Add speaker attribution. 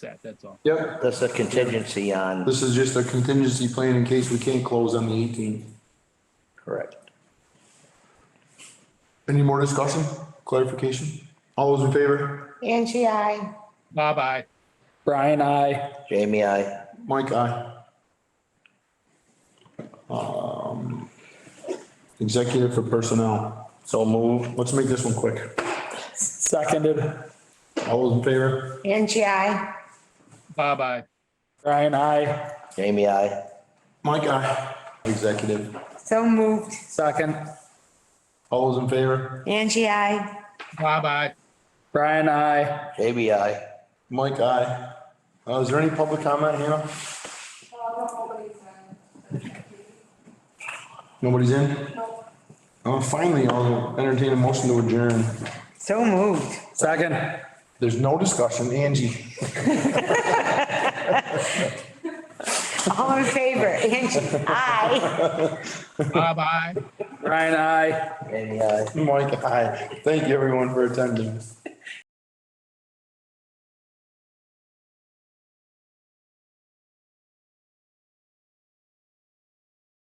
Speaker 1: that, that's all.
Speaker 2: Yep,
Speaker 3: That's a contingency on,
Speaker 2: this is just a contingency plan in case we can't close on the eighteenth.
Speaker 3: correct.
Speaker 2: Any more discussion, clarification? All those in favor?
Speaker 4: Angie, I.
Speaker 1: Bye-bye.
Speaker 5: Brian, I.
Speaker 3: Jamie, I,
Speaker 2: Mike, aye. Um, Executive for personnel. So move. Let's make this one quick.
Speaker 5: Seconded.
Speaker 2: All those in favor?
Speaker 4: Angie, I.
Speaker 1: Bye-bye.
Speaker 5: Brian, I.
Speaker 3: Jamie, I,
Speaker 2: Mike, aye. Executive.
Speaker 4: So moved.
Speaker 5: Second.
Speaker 2: All those in favor?
Speaker 4: Angie, I.
Speaker 1: Bye-bye.
Speaker 5: Brian, I.
Speaker 3: Jamie, I.
Speaker 2: Mike, aye. Uh, is there any public comment, Hannah? Nobody's in? Uh, finally, I'll entertain a motion to adjourn.
Speaker 4: So moved.
Speaker 5: Second.
Speaker 2: There's no discussion, Angie.
Speaker 4: All in favor? Angie, I.
Speaker 1: Bye-bye.
Speaker 5: Brian, I.
Speaker 3: Jamie, I.
Speaker 2: Mike, aye. Thank you everyone for attending.